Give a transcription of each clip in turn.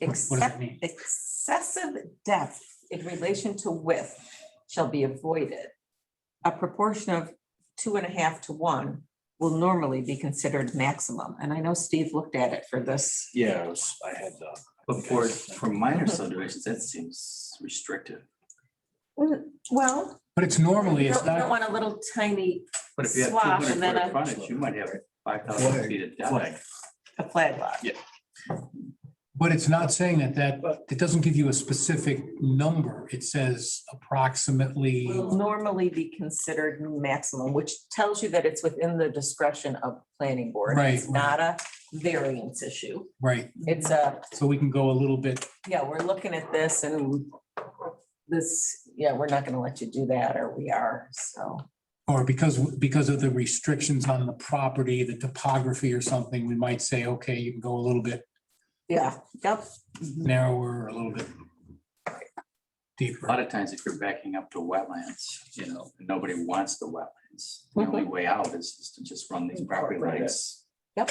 what does that except mean? excessive depth in relation to width shall be avoided. A proportion of two and a half to one will normally be considered maximum. And I know Steve looked at it for this. Yeah, I was, I had uh, the. But for, for minor subdivisions, that seems restrictive. Mm, Well. But it's normally, You it's don't you don't not, want a little tiny But if you have two Swash hundred and then foot a- of frontage, you might have five thousand Flag. feet of deck. a flag lot. but it's not saying that that, it doesn't give you a specific number. It says approximately. Will normally be considered maximum, which tells you that it's within the discretion of planning board. Right, It's not a variance issue. Right, It's a, so we can go a little bit, yeah, we're looking at this and this, yeah, we're not gonna let you do that, or we are, so. or because, because of the restrictions on the property, the topography or something, we might say, okay, you can go a little bit Yeah, yep. narrower, or a little bit A deeper. lot of times if you're backing up to wetlands, you know, nobody wants the wetlands. The only way out is is to just run these property Incorporate it. lines Yep.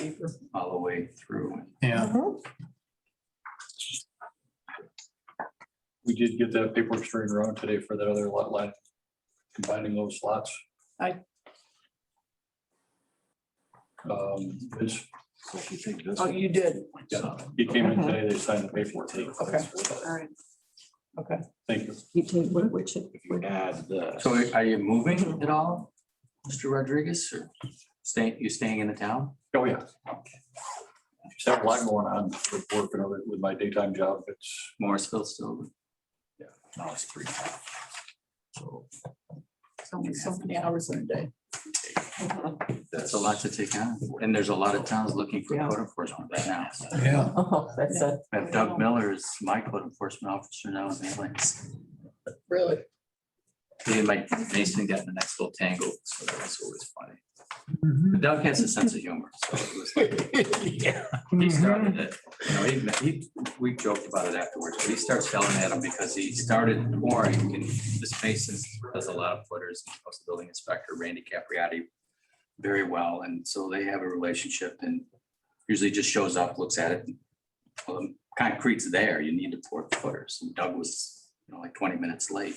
all the way through. Yeah, Mhm. We did get that paperwork straightened around today for that other lot line, combining those lots. Aye. Um, it's, So if you take this Oh, one, you did. yeah, he came in today, they signed the paperwork. Okay. right. Okay. Thank you. You take one, which, if you add the. So are you moving at all, Mr. Rodriguez, or staying, you staying in the town? Oh, yeah. Just have a lot going on with work and other- with my daytime job. It's Morrisville still? Yeah. No, it's three. So only so many hours in a day. Mm-hmm. that's a lot to take on, and there's a lot of towns looking for Yeah. code enforcement right now. yeah. Oh, that's a, I have Doug Miller is my code enforcement officer now in Atlantis. really, He and Mike Mason got in the next little tangle, so that was always funny. Mm-hmm. But Doug has a sense of humor, so it was like, he Mm-hmm. started it. You know, he, he, we joked about it afterwards, but he starts yelling at him because he started pouring and this Mason does a lot of footers, he was the building inspector, Randy Capriati, very well, and so they have a relationship and usually just shows up, looks at it. Well, the concrete's there, you need to pour the footers, and Doug was, you know, like twenty minutes late.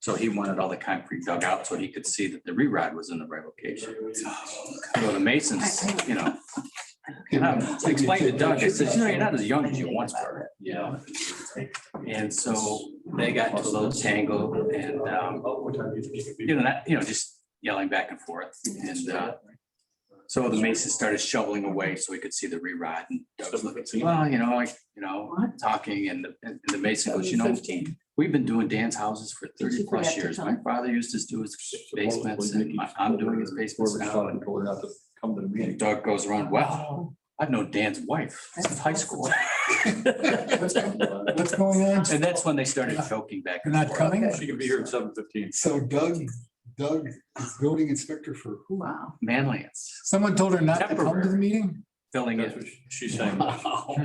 So he wanted all the concrete dug out so he could see that the rerod was in the right location. So the masons, you know. And I explained Um, to Doug, I said, you know, you're not as young as you once were, you know? And so they got into a little tangle and, um, you know, that, you know, just yelling back and forth. And, uh, so the mason started shoveling away so he could see the rerod and Doug was looking, saying, well, you know, like, you know, talking and the, and the mason goes, you know, We've been doing Dan's houses for you thirty plus forget to years. tell My father used to do his basements and my- I'm doing his basements now. Told her not to Come to the And meeting. Doug goes around, wow, I've known Dan's wife since high school. What's going on? And that's when they started joking back. You're and not forth. coming? She can be here at seven fifteen. So Doug, Doug is building inspector for who? wow. Manlius, Someone told her not to come to the Temporary. meeting? filling That's in. what she- she's saying. Wow.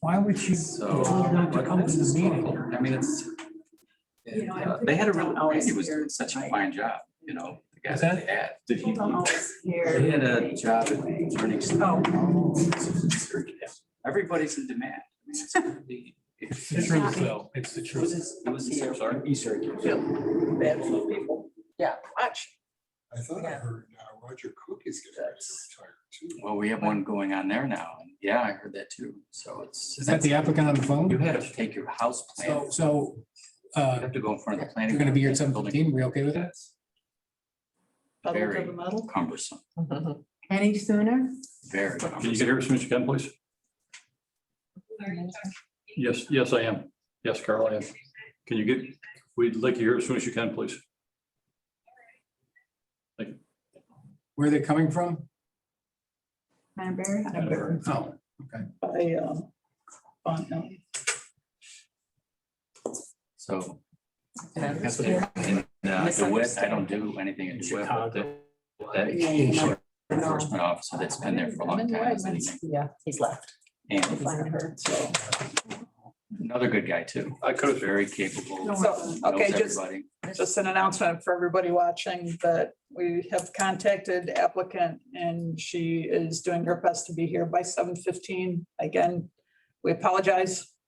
Why would you? So. told her not to come to the meeting. I mean, it's. You know, I uh, They had a think real, I'm always Randy was doing scared, such a right? fine job, you know, the guy Is that that- they had. Did he? He had a job at turning. Oh. Everybody's in demand. I mean, it's gonna be- It's the truth, though. It's the It was truth. his, it was his, I'm sorry. Yeah, watch. I thought I Yeah. heard uh, Roger Cook is getting ready That's- to retire too. Well, we have one going on there now. and Yeah, I heard that too. So it's. Is that the applicant on the You phone? had to take your house So, plan. so, You uh, have to go in front of the planning. you're gonna be here at board, seven building- fifteen, we okay with that? That's Very cumbersome, Mm-hmm. Any sooner? very Can you cumbersome. get here as soon as you can, please? Yes, yes, I am. Yes, Carl, I am. Can you get, we'd like you here as soon as you can, please. Where they're coming from? Canterbury? Oh. um, So. Yeah. that's what you're- and, uh, The West, I don't do anything in the West. but the- That enforcement officer that's been there for a long time. is leaving. Yeah, he's left. And Find her, so. another good guy too. I could have Very capable. knows So, okay, just, everybody. just an announcement for everybody watching that we have contacted applicant and she is doing her best to be here by seven fifteen. Again, we apologize